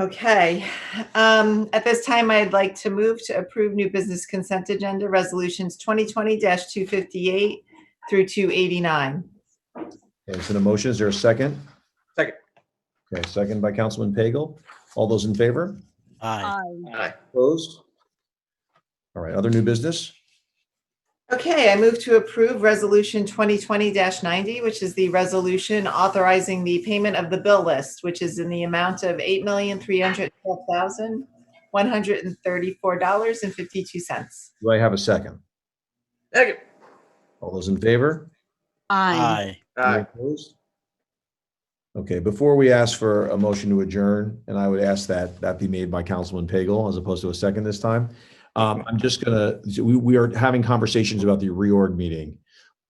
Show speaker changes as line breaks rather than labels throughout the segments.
Okay, um, at this time, I'd like to move to approve new business consent agenda resolutions twenty twenty two fifty-eight through two eighty-nine.
Okay, so the motion, is there a second?
Second.
Okay, second by Councilman Pagel. All those in favor?
Aye.
Aye.
Opposed? All right, other new business?
Okay, I move to approve resolution twenty twenty ninety, which is the resolution authorizing the payment of the bill list, which is in the amount of eight million, three hundred twelve thousand, one hundred and thirty-four dollars and fifty-two cents.
Do I have a second?
Second.
All those in favor?
Aye.
Aye.
Opposed? Okay, before we ask for a motion to adjourn, and I would ask that that be made by Councilman Pagel as opposed to a second this time. Um, I'm just gonna, we, we are having conversations about the reorg meeting.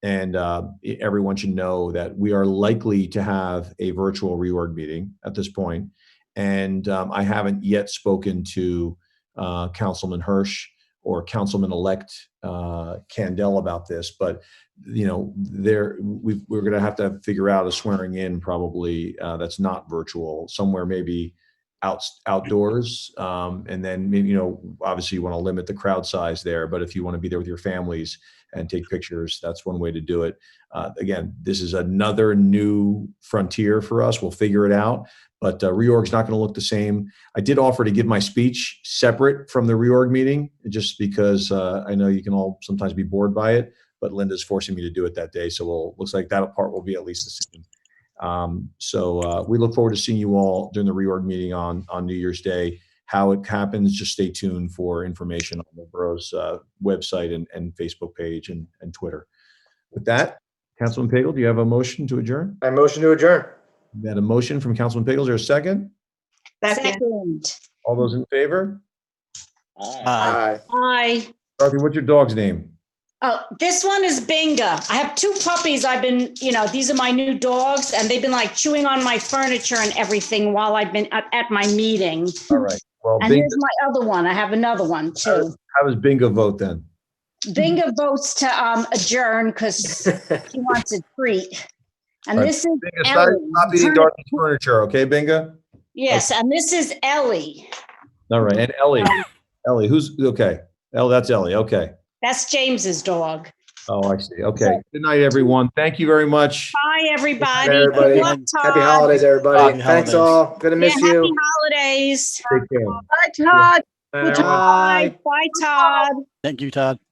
And, uh, e- everyone should know that we are likely to have a virtual reorg meeting at this point. And, um, I haven't yet spoken to, uh, Councilman Hirsch or Councilman-elect, uh, Candell about this, but you know, there, we, we're gonna have to figure out a swearing in probably, uh, that's not virtual, somewhere maybe out, outdoors. Um, and then maybe, you know, obviously you want to limit the crowd size there, but if you want to be there with your families and take pictures, that's one way to do it. Uh, again, this is another new frontier for us. We'll figure it out. But uh, reorg's not going to look the same. I did offer to give my speech separate from the reorg meeting, just because uh, I know you can all sometimes be bored by it but Linda's forcing me to do it that day. So we'll, looks like that part will be at least the same. Um, so, uh, we look forward to seeing you all during the reorg meeting on, on New Year's Day. How it happens, just stay tuned for information on the borough's, uh, website and, and Facebook page and, and Twitter. With that, Councilman Pagel, do you have a motion to adjourn?
I motion to adjourn.
We had a motion from Councilman Pagel. Is there a second?
Second,
Second.
All those in favor?
Aye.
Aye.
Dorothy, what's your dog's name?
Oh, this one is Bingo. I have two puppies. I've been, you know, these are my new dogs and they've been like chewing on my furniture and everything while I've been at, at my meeting.
Oh,
All right. Well,
And
Bingo,
here's my other one. I have another one
Oh.
too.
how does bingo vote then?
Bingo votes to um, adjourn because he wants a treat. And
All right.
this is
Bingo, stop
Ellie.
stop eating Dorothy's furniture, okay, Bingo?
Yes, and this is Ellie.
All right, and Ellie, Ellie, who's, okay, Ellie, that's Ellie, okay.
That's James's dog.
Oh, I see, okay. Good night, everyone. Thank you very much.
Bye, everybody. Good
everybody.
luck,
Happy
Todd.
holidays, everybody.
Happy
Thanks
holidays.
all. Gonna
Yeah,
miss
happy
you.
holidays.
Take care.
Bye, Todd.
Bye, everyone.
aye.
Bye, Todd.
Thank you, Todd.